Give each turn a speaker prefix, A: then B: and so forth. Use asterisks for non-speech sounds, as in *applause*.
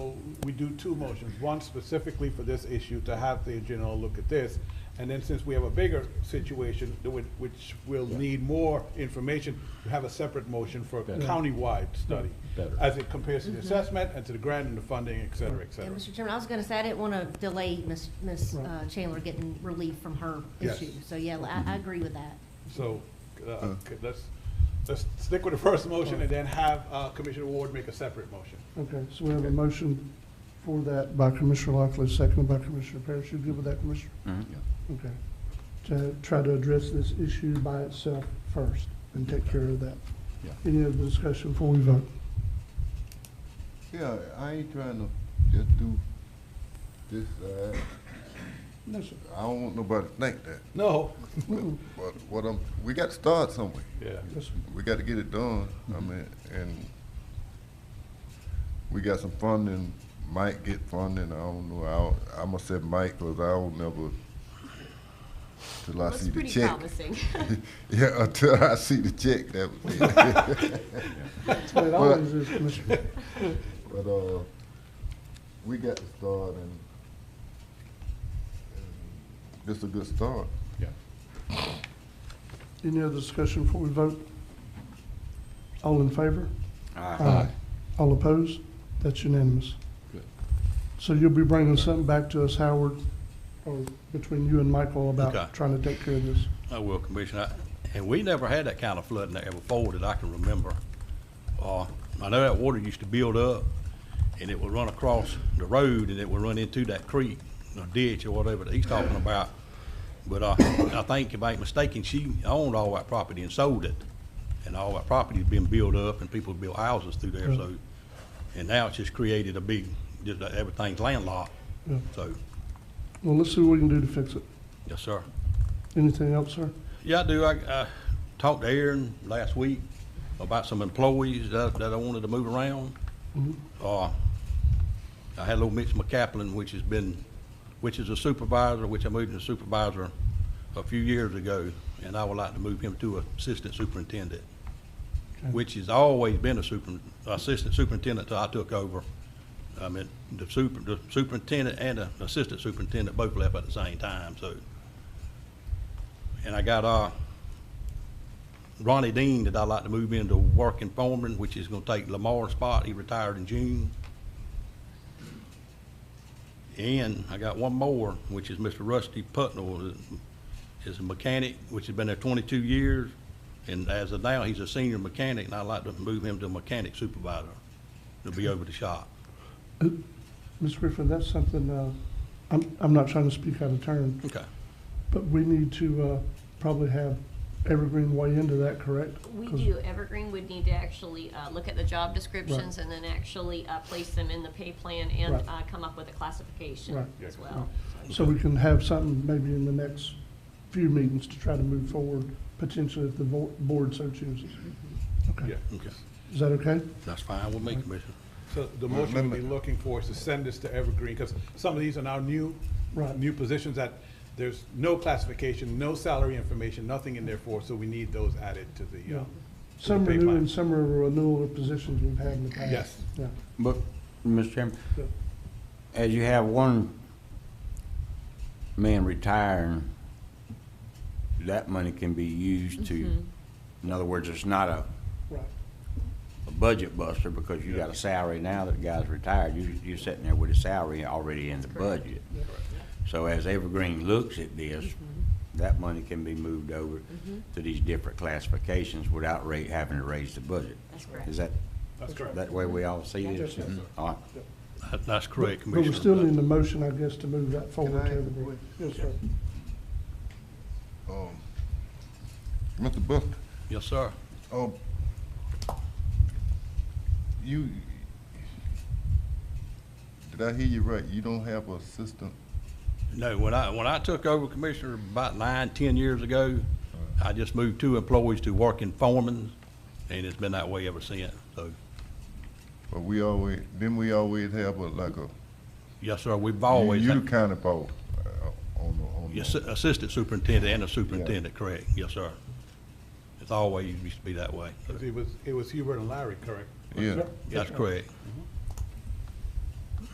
A: we do two motions, one specifically for this issue, to have the general look at this. And then since we have a bigger situation, that would- which will need more information, we have a separate motion for a
B: Better.
A: countywide study.
B: Better.
A: As it compares to the assessment and to the grant and the funding, et cetera, et
C: Mm-hmm. Yeah,
A: cetera.
C: Mr. Chairman, I was gonna say, I didn't wanna delay Ms. Ms.
D: Right.
C: uh, Chandler getting relief from her
A: Yes.
C: issue. So, yeah, I, I agree with that.
A: So, uh, okay, let's, let's stick with the first motion and then have uh, Commissioner Ward make a separate motion.
D: Okay, so we have a motion for that by Commissioner Lockley, seconded by Commissioner Parrish. You good with that, Commissioner? Okay. To try to address this issue by itself first and take care of that.
B: Yeah.
D: Any other discussion before we vote?
E: Yeah, I ain't trying to just do this, uh,
D: No, sir.
E: I don't want nobody to think that.
B: *laughs*
A: No,
F: Mm-hmm.
E: But what I'm, we got to start somewhere.
A: yeah,
D: Yes, sir.
E: We got to get it done. I
F: Mm-hmm.
E: mean, and we got some funding, might get funding, I don't know. I, I'm gonna say might, cause I don't never, till I
F: Looks
E: see the
F: pretty
E: check.
F: promising.
E: *laughs*
F: *laughs*
E: Yeah, *laughs* until I see the check, that was
F: *laughs*
E: it.
D: That's what it always is, Commissioner.
E: But uh, we got to start, and, and this is a good start.
B: Yeah.
D: Any other discussion before we vote? All in favor? Aye. All opposed? That's unanimous.
B: Good.
D: So you'll be bringing something back to us, Howard, or between you and Michael
G: Okay.
D: about trying to take care of this?
G: I will, Oh, Commissioner. I- And we never had that kind of flooding there before that I can remember. Uh, I know that water used to build up and it would run across the road and it would run into that creek or ditch or whatever that he's talking about. But I, I think if I ain't mistaken, she owned all that property and sold it. And all that property's been built up and people built houses through there, so. And now it's just created a big, just, uh, everything's landlocked.
D: Yeah.
G: So,
D: Well, let's see what we can do to fix it.
G: yes, sir.
D: Anything else, sir?
G: Yeah, I do. I, I talked to Aaron last week about some employees that, that I wanted to move around. Uh, I had little Mitch McCaplin, which has been, which is a supervisor, which I moved to supervisor a few years ago, and I would like to move him to assistant superintendent, which has always been a super, assistant superintendent till I took over. I mean, the super, the superintendent and the assistant superintendent both left at the same time, so. And I got, uh, Ronnie Dean that I'd like to move into working foreman, which is gonna take Lamar's spot. He retired in June. And I got one more, which is Mr. Rusty Putnell, is a mechanic, which has been there twenty-two years. And as of now, he's a senior mechanic, and I'd like to move him to mechanic supervisor. He'll be over the shop.
D: Ms. Griffin, that's something, uh, I'm, I'm not trying to speak out of turn,
G: Okay.
D: but we need to, uh, probably have Evergreen weigh into that, correct?
F: We
D: 'Cause-
F: do, Evergreen would need to actually uh, look at the job descriptions and then actually uh, place them in the pay plan and
D: Right.
F: uh, come up with a classification
D: Right.
F: as well.
D: So we can have something maybe in the next few meetings to try to move forward, potentially if the vo- board so chooses.
A: yeah.
D: Okay,
G: Okay.
D: is that okay?
G: That's fine with me, Commissioner.
A: So the motion we'd be looking for is to send this to Evergreen, because some of these are now new,
D: Right.
A: new positions that there's no classification, no salary information, nothing in there for, so we need those added to the, uh, to the
D: Some
A: pay
D: renew
A: plan.
D: and some are renewal of positions we've had in the past.
A: Yes.
D: Yeah,
B: But, Mr. Chairman,
D: Yeah.
B: as you have one man retiring, that money can be used to,
F: Mm-hmm.
B: in other words, it's not a,
D: right.
B: a budget buster because you got a salary now that the guy's retired. You, you're sitting there with a salary already in the budget. So as Evergreen looks at this,
F: Mm-hmm.
B: that money can be moved over to these different classifications without ra- having to raise the budget.
F: That's correct.
B: Is that,
A: That's correct.
B: that way we all see
D: Yes,
B: it?
D: sir.
B: All right.
G: That- That's correct,
D: But
G: Commissioner. uh,
D: we still need a motion, I guess, to move that
E: Can
D: forward to
E: I ask a
D: Evergreen. Yes, sir.
E: Um, Mr. Buster,
G: Yes, sir.
E: um, you, did I hear you right? You don't have an assistant?
G: No, when I, when I took over Commissioner about nine, ten years ago, I just moved two employees to working foremen, and it's been that way ever since. So,
E: But we always, didn't we always have a, like a,
G: yes, sir, we've
E: you-
G: always,
E: you the
G: had-
E: kind of boss, uh, on the, on the.
G: yes, assistant superintendent and a superintendent, correct, yes, sir. It's always used to be that way.
A: It was, it was Hubert and Larry, correct?
E: Yeah,
G: That's correct.